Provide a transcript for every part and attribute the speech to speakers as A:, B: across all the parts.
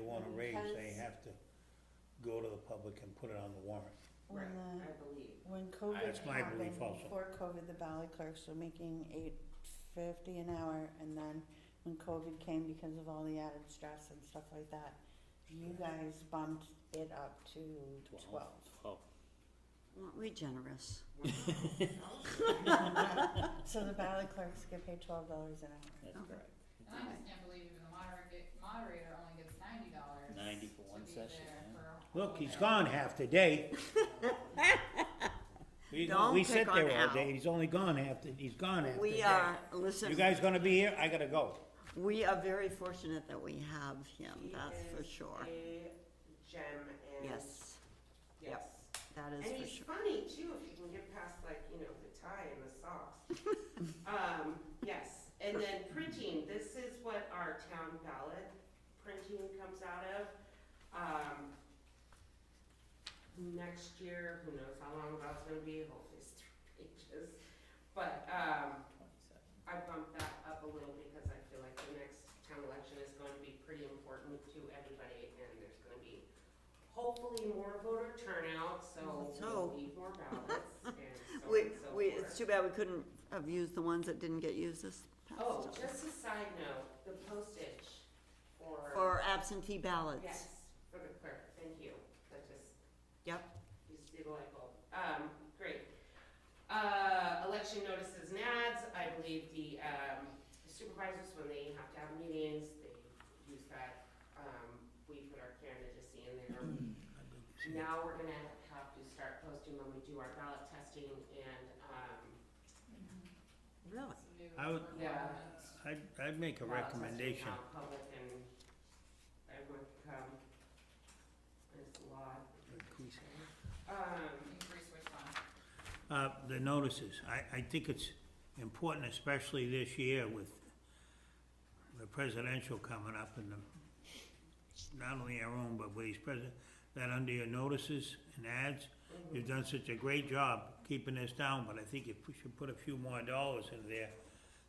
A: want
B: Mm,
A: a raise, they
C: Because-
A: have to go to the public and put it on the warrant.
C: When
D: Right,
C: the,
D: I believe.
C: when COVID
A: That's my
C: happened,
A: belief also.
C: before COVID, the valley clerks were making eight fifty an hour, and then when COVID came because of all the added stress and stuff like that, you guys bumped it up to twelve.
A: Twelve.
B: Aren't we generous?
C: So the valley clerks get paid twelve dollars an hour.
B: Oh.
E: And I just can't believe even the moderator, moderator only gets ninety dollars.
F: 90 for one session, yeah.
A: Look, he's gone half the day. We,
B: Don't
A: we
B: pick
A: sit there
B: on
A: all
B: Al.
A: day, he's only gone half, the- he's gone half the day.
B: We are,
A: You
B: listen,
A: guys gonna be here? I gotta go.
B: we are very fortunate that we have him,
D: He
B: that's for
D: is
B: sure.
D: A gem and.
B: Yes,
D: Yes.
B: that is
D: And
B: for
D: he's
B: sure.
D: funny too, if you can get past like, you know, the tie and the socks. Um, yes, and then printing, this is what our town ballot printing comes out of. Um, next year, who knows how long that's gonna be, hopefully it's three pages. But, um, I bumped that up a little because I feel like the next town election is going to be pretty important to everybody and there's gonna be hopefully more voter turnout, so
B: Let's hope.
D: we'll need more ballots and so
B: We,
D: on and so
B: we,
D: forth.
B: it's too bad we couldn't have used the ones that didn't get used this past
D: Oh,
B: time.
D: just a side note, the postage for,
B: For absentee ballots.
D: yes, for the clerk, thank you, that just
B: Yep,
D: You see the light bulb. Um, great. Uh, election notices and ads, I believe the, um, supervisors, when they have to have meetings, they use that. Um, we put our candidacy in there. Now we're gonna have to start posting when we do our ballot testing and, um,
B: really?
A: I would- I'd, I'd make a
D: ballot testing,
A: recommendation.
D: how Public and everyone can come. There's a lot. Um,
E: Increase which one?
A: Uh, the notices, I, I think it's important, especially this year with the presidential coming up and the, not only our own, but vice president, that under your notices and ads, you've done such a great job keeping this down, but I think if we should put a few more dollars in there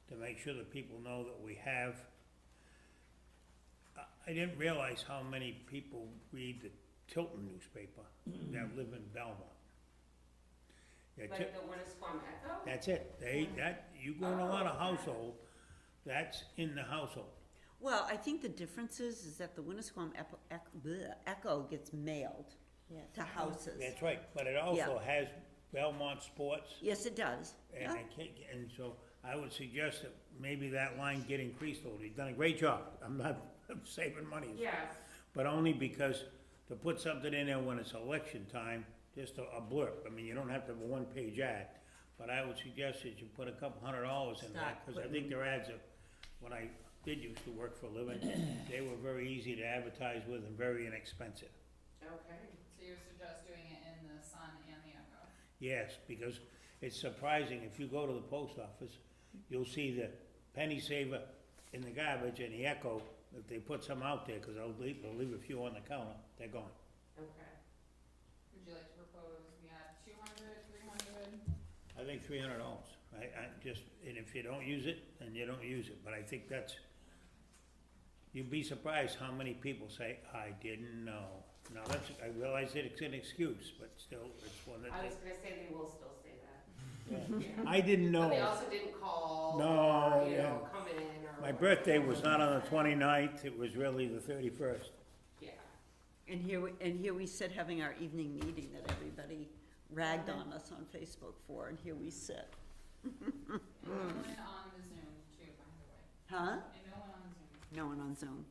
A: to make sure that people know that we have. I, I didn't realize how many people read the Tilton newspaper that live in Belmont. Yeah, Til-
D: like the Winnisquam Echo?
A: that's it, they, that, you go in a lot of household, that's in the household.
B: Well, I think the difference is, is that the Winnisquam Echo, Echo gets mailed to houses.
A: That's right, but it also has Belmont Sports,
B: Yes, it does.
A: and
B: Yeah,
A: I can't, and so I would suggest that maybe that line get increased a little, you've done a great job, I'm not, I'm saving money.
D: Yes.
A: But only because to put something in there when it's election time, just a a blurb, I mean, you don't have to have a one-page ad, but I would suggest that you put a couple hundred dollars in there,
B: Start
A: cause I
B: putting-
A: think their ads are, when I did used to work for a living, they were very easy to advertise with and very inexpensive.
D: Okay.
E: So you suggest doing it in the sun and the echo?
A: Yes, because it's surprising, if you go to the post office, you'll see the penny saver in the garbage and the Echo, if they put some out there, cause they'll leave, they'll leave a few on the counter, they're gone.
D: Okay.
E: Would you like to propose we add two hundred, three hundred?
A: I think three hundred dollars, I, I just, and if you don't use it, then you don't use it, but I think that's, you'd be surprised how many people say, I didn't know. Now, that's, I realize that it's an excuse, but still, it's one
D: I
A: that
D: was gonna say they will still say that.
A: they,
D: Yeah.
A: I didn't
D: But they
A: know.
D: also didn't call.
A: No,
D: Or, you know,
A: yeah.
D: come in or.
A: My birthday was not on the twenty-ninth, it was really the thirty-first.
D: Yeah.
B: and here, we and here we sit having our evening meeting that everybody ragged on us on Facebook for, and here we sit.
E: And
B: Hmm.
E: no one on the Zoom too, by the way.
B: Huh?
E: And no one on Zoom.
B: No one on Zoom,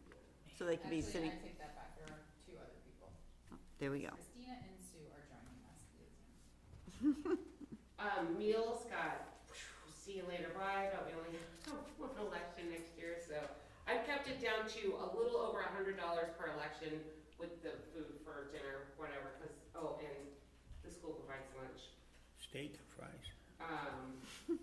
B: so they could be
E: Actually,
B: sitting,
E: I take that back, there are two other people.
B: oh, there we go.
E: Christina and Sue are joining us via Zoom.
D: Um, meals got, phew, see you later, bye, but we only have one election next year, so. I've kept it down to a little over a hundred dollars per election with the food for dinner, whatever, cause, oh, and the school provides lunch.
A: Steak and fries.
D: Um,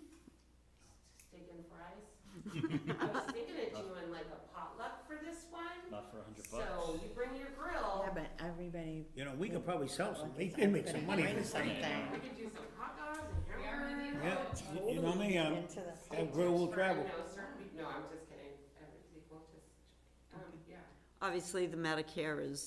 D: steak and fries. I was thinking of doing like a potluck for this one,
F: Not for a hundred
D: so
F: bucks.
D: you bring your grill.
C: Yeah, but everybody
A: You know, we could probably sell some, they can make some money.
C: Bring
A: this thing.
C: something.
D: We could do some hot dogs and
E: We are
D: hamburgers.
E: really.
A: Yeah, you- you know me, um,
C: into the
A: that grill will
D: For-
A: travel.
D: No, sir, no, I'm just kidding, everything will just, um, yeah.
B: obviously, the Medicare is